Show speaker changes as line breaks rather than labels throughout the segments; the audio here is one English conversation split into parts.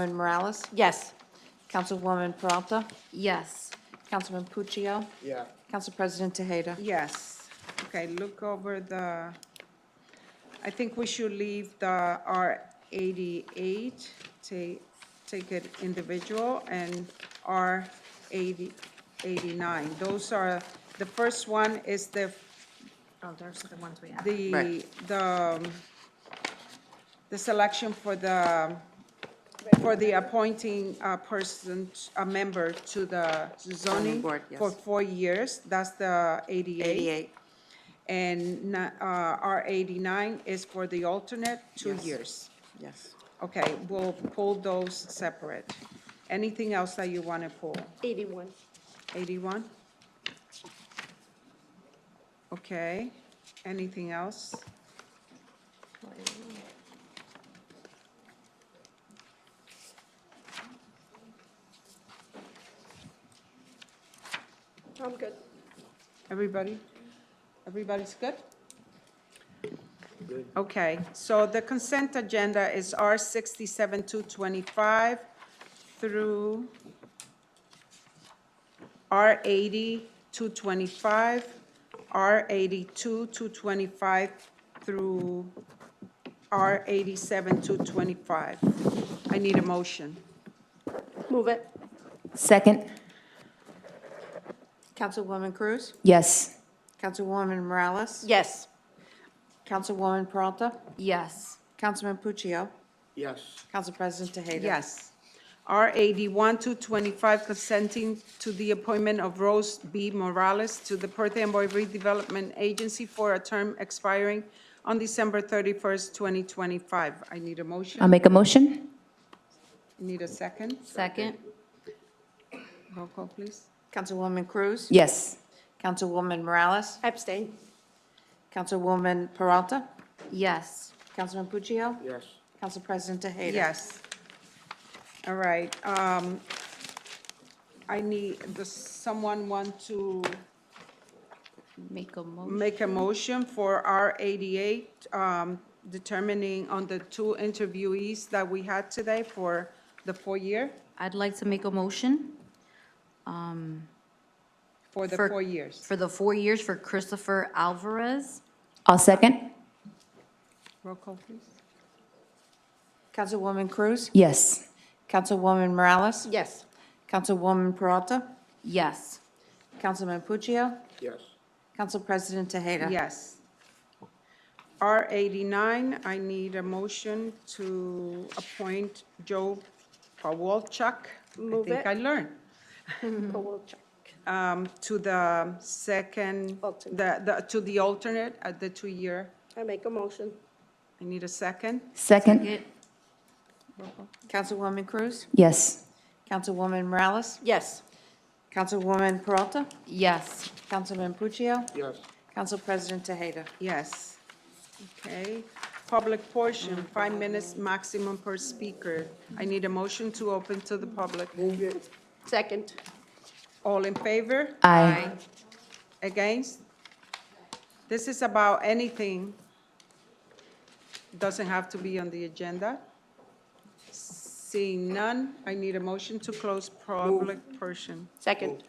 Councilwoman Morales?
Yes.
Councilwoman Peralta?
Yes.
Councilman Puccio?
Yeah.
Council President Tejeda?
Yes. Okay, look over the, I think we should leave the R eighty-eight, take, take it individual, and R eighty, eighty-nine. Those are, the first one is the,
Oh, those are the ones we have.
the,
Right.
the, um, the selection for the, for the appointing a person, a member to the zoning.
board, yes.
For four years, that's the eighty-eight. And na- uh, R eighty-nine is for the alternate, two
Yes.
years.
yes.
Okay, we'll pull those separate. Anything else that you want to pull?
81.
Eighty-one? Okay, anything else?
I'm good.
Everybody? Everybody's good? Okay, so the consent agenda is R sixty-seven to twenty-five through R eighty to twenty-five, R eighty-two to twenty-five through R eighty-seven to twenty-five. I need a motion.
Move it.
Second,
Councilwoman Cruz?
yes.
Councilwoman Morales?
Yes.
Councilwoman Peralta?
Yes.
Councilman Puccio?
Yes.
Council President Tejeda?
Yes. R eighty-one to twenty-five consenting to the appointment of Rose B. Morales to the Perth Amboy Redevelopment Agency for a term expiring on December thirty-first, twenty twenty-five. I need a
Um,
I'll
motion.
make a motion?
Need a second?
Second.
Roll call, please.
Councilwoman Cruz?
Yes.
Councilwoman Morales?
Abstain.
Councilwoman Peralta?
Yes.
Councilman Puccio?
Yes.
Council President Tejeda?
Yes. All right, um, I need, does someone want to
Make a motion.
make a motion for R eighty-eight, um, determining on the two interviewees that we had today for the four-year,
I'd like to make a motion
for the
For-
four years.
for the four years for Christopher Alvarez.
I'll second?
Roll call, please.
Councilwoman Cruz?
Yes.
Councilwoman Morales?
Yes.
Councilwoman Peralta?
Yes.
Councilman Puccio?
Yes.
Council President Tejeda?
Yes. R eighty-nine, I need a motion to appoint Joe Pawalchuk. I
Move
think
it.
I learned,
We'll check.
um, to the second,
Alternate.
the, the, to the alternate at the two-year.
I make a motion.
I need a second.
Second,
Councilwoman Cruz?
yes.
Councilwoman Morales?
Yes.
Councilwoman Peralta?
Yes.
Councilman Puccio?
Yes.
Council President Tejeda?
Yes. Okay. Public portion, five minutes maximum per speaker. I need a motion to open to the public.
Move it.
Second.
All in favor?
Aye.
Against? This is about anything. Doesn't have to be on the agenda. Seeing none, I need a motion to close public portion.
Second.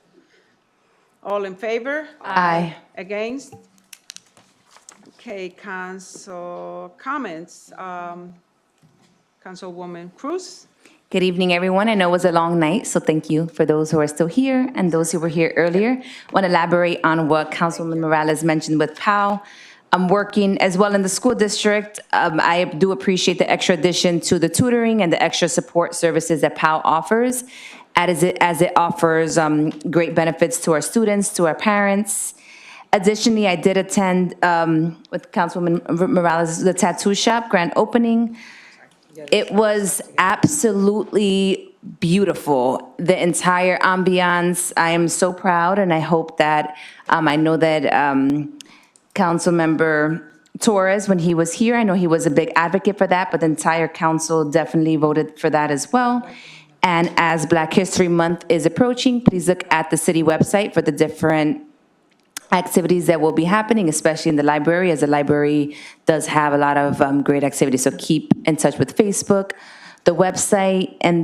All in favor?
Aye.
Against? Okay, council comments. Um, Councilwoman Cruz?
Good evening, everyone. I know it was a long night, so thank you for those who are still here and those who were here earlier. Want to elaborate on what Councilwoman Morales mentioned with POW. I'm working as well in the school district. Um, I do appreciate the extra addition to the tutoring and the extra support services that POW offers as it, as it offers, um, great benefits to our students, to our parents. Additionally, I did attend, um, with Councilwoman Morales, the tattoo shop grand opening. It was absolutely beautiful, the entire ambiance. I am so proud, and I hope that, um, I know that, um, Councilmember Torres, when he was here, I know he was a big advocate for that, but the entire council definitely voted for that as well. And as Black History Month is approaching, please look at the city website for the different activities that will be happening, especially in the library, as the library does have a lot of um, great activities. So keep in touch with Facebook, the website, and